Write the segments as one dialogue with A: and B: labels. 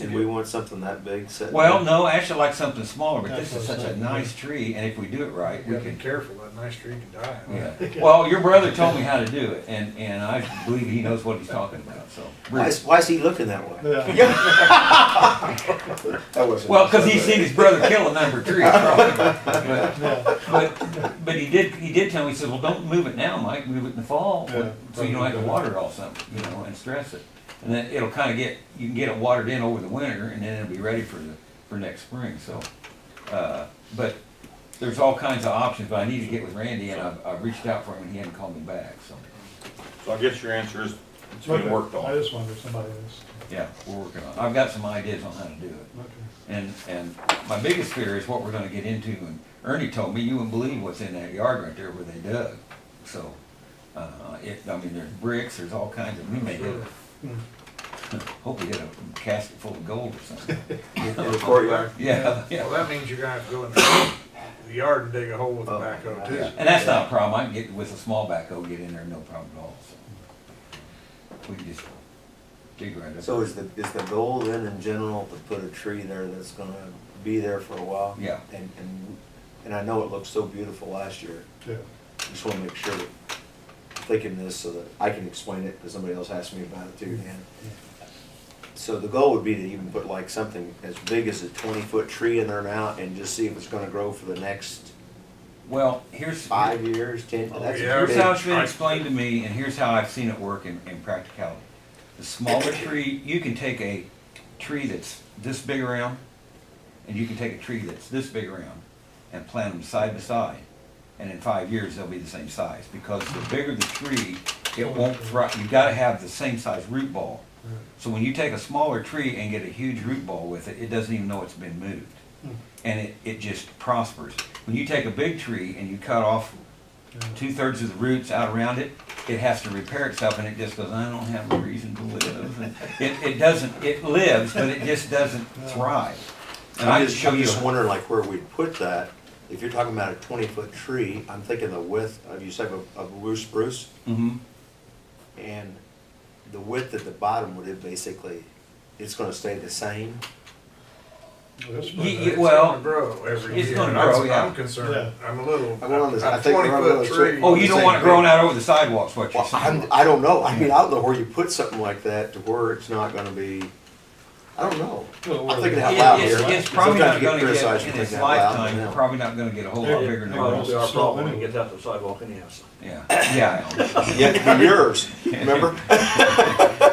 A: And we want something that big set.
B: Well,
A: back.
B: no, actually, I like something smaller, but this is such a nice tree, and if we do it right, we
C: You gotta be
B: can.
C: careful, that nice tree can die.
B: Yeah. Well, your brother told me how to do it, and, and I believe he knows what he's talking about, so.
A: Why is, why is he looking that way?
D: Yeah.
A: That wasn't.
B: Well, because he's seen his brother kill a number three, probably. But,
D: Yeah.
B: but, but he did, he did tell me, he said, well, don't move it now, Mike, move it in the fall,
D: Yeah.
B: so you don't have to water it all summer, you know, and stress it. And then it'll kind of get, you can get it watered in over the winter, and then it'll be ready for the, for next spring, so. Uh, but there's all kinds of options, but I need to get with Randy, and I've, I've reached out for him, and he hadn't called me back, so,
E: So I guess your answer is, it's being worked
D: I
E: on.
D: just wonder if somebody is.
B: yeah, we're working on it. I've got some ideas on how to do it.
D: Okay.
B: And, and my biggest fear is what we're gonna get into, and Ernie told me, you wouldn't believe what's in that yard right there where they dug. So, uh, it, I mean, there's bricks, there's all kinds of, we may get,
D: Hmm.
B: hope we get a casket full of gold or something.
A: In the courtyard.
B: Yeah, yeah.
C: Well, that means you're gonna have to go in the the yard and dig a hole with a backhoe too.
B: And that's not a problem, I can get, with a small backhoe, get in there, no problem at all, so. We can just dig right up.
A: So is the, is the goal then in general to put a tree there that's gonna be there for a while?
B: Yeah.
A: And, and, and I know it looked so beautiful last year,
D: Yeah.
A: just wanna make sure, that I'm thinking this so that I can explain it, because somebody else asked me about it too, Dan. So the goal would be to even put like something as big as a twenty-foot tree in there now and just see if it's gonna grow for the next
B: Well, here's.
A: five years, ten, that's
C: yeah.
A: a
B: Here's how
A: big.
B: it's been explained to me, and here's how I've seen it work in, in practicality. The smaller tree, you can take a tree that's this big around, and you can take a tree that's this big around, and plant them side by side. And in five years, they'll be the same size, because the bigger the tree, it won't thrive, you gotta have the same size root ball. So when you take a smaller tree and get a huge root ball with it, it doesn't even know it's been moved.
D: Hmm.
B: And it, it just prospers. When you take a big tree and you cut off two thirds of the roots out around it, it has to repair itself and it just goes, I don't have a reason to live. And It, it doesn't, it lives, but it just doesn't thrive. And I
A: I'm
B: just
A: just,
B: show
A: I'm
B: you,
A: just wondering like where we'd put that, if you're talking about a twenty-foot tree, I'm thinking the width, of you said of- of loose spruce,
B: hmm
A: and the width at the bottom, would it basically, it's gonna stay the same?
D: That's
B: Ye-
D: pretty
B: ye-
D: nice.
C: It's
B: well,
C: gonna Grow every year.
B: it's gonna
C: That's-
B: grow, yeah.
C: I'm concerned,
D: Yeah.
C: I'm a little,
A: I went on this- I
C: a
A: think
C: twenty
A: we're on
C: foot
A: this-
C: tree.
B: Oh, you don't want it growing out over the sidewalks, what you're
A: Well, I'm,
B: saying.
A: I don't know, I mean, I don't know where you put something like that to where it's not gonna be, I don't know.
D: Well,
A: I'm thinking
D: where
A: out
B: It-
A: loud
B: it's-
A: here.
B: It's probably
A: Sometimes
B: not
A: you get
B: gonna
A: criticized
B: get,
A: for
B: in
A: thinking
B: its
A: out loud,
B: lifetime,
A: yeah.
B: probably not gonna get a whole lot
D: Yeah,
B: bigger than
D: yeah,
B: it
D: well,
B: was.
D: it's our fault when it gets
E: out to the sidewalk anyhow,
B: Yeah, yeah. I know.
A: Yeah, it'd be yours, remember?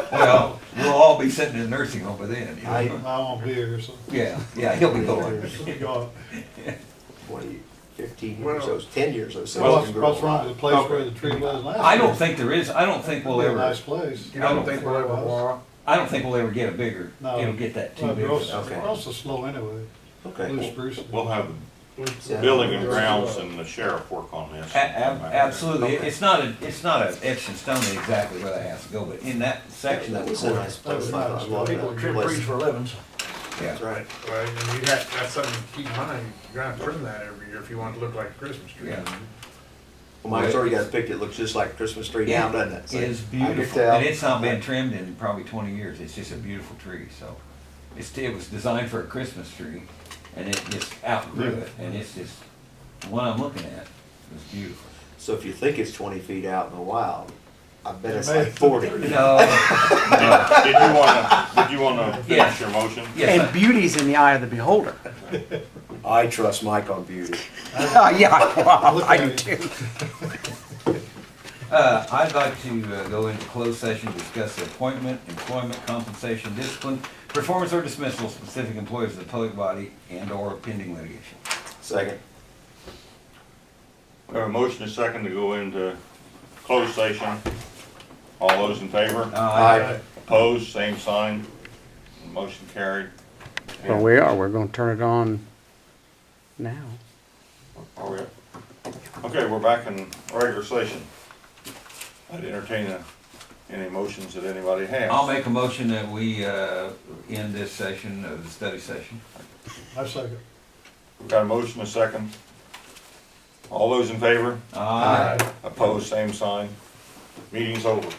B: Well, we'll all be sitting in a nursing home by then. you know?
A: I-
D: I won't be here, so.
B: Yeah, yeah, he'll be going.
D: God.
A: Twenty, fifteen years,
C: Well-
A: those, ten years, those.
D: Well, what's, what's wrong with the place where the tree was last?
B: I don't
D: year?
B: think there is, I don't think we'll
D: Be a
B: ever,
D: Nice place.
C: You don't think we'll ever walk?
B: I don't think we'll ever get a bigger,
D: No.
B: it'll get that too
D: Well,
B: big.
D: We're also,
A: Okay.
D: we're also slow anyway,
A: Okay,
D: loose spruce.
E: We'll have the
A: Yeah.
E: building and grounds and the sheriff work on this.
B: A- ab- Absolutely, It- it's not, a it's not a etched in stone exactly where that has to go, but in that section
A: that
B: of the
A: was a
B: corner.
A: nice place, I I love
D: People
A: that place.
E: livings.
B: Yeah,
A: That's right.
C: Well, and you have, that's something to keep in mind, you're gonna have to trim that every year if you want it to look like a Christmas tree.
B: yeah.
A: Well, Mike's already got a picture, it looks just like a Christmas tree
B: Yeah,
A: now, doesn't it? So
B: It's
A: I can
B: beautiful,
A: tell.
B: and it's not been trimmed in probably twenty years, it's just a beautiful tree, so. It's, it was designed for a Christmas tree, and it just outgrew it, and it's just, the one I'm looking at is beautiful.
A: So if you think it's twenty feet out in the wild, I bet it's
D: It may-
A: like forty.
B: No, no,
E: Did you wanna, did you wanna finish
B: Yes.
E: your motion?
B: yes, I-
F: beauty's in the eye of the beholder.
A: I trust Mike on beauty.
F: yeah, well,
D: I do
F: too.
B: uh, I'd like to uh, go into closed session, to discuss the appointment, employment, compensation, discipline, performance or dismissal of specific employees of the public body and or pending litigation.
A: Second.
E: We have a motion and second to go into closed session. All those in favor?
B: Uh.
A: Aye.
E: Opposed, same sign. Motion carried.
F: Well, we are. We're going to turn it on now.
E: Are we- Okay, we're back in regular session. I'd entertain uh, any motions that anybody has.
B: I'll make a motion that we, uh, end this session of the study session.
D: I second.
E: Got a motion, a second. All those in favor?
B: Aye.
E: Opposed, same sign. Meeting's over.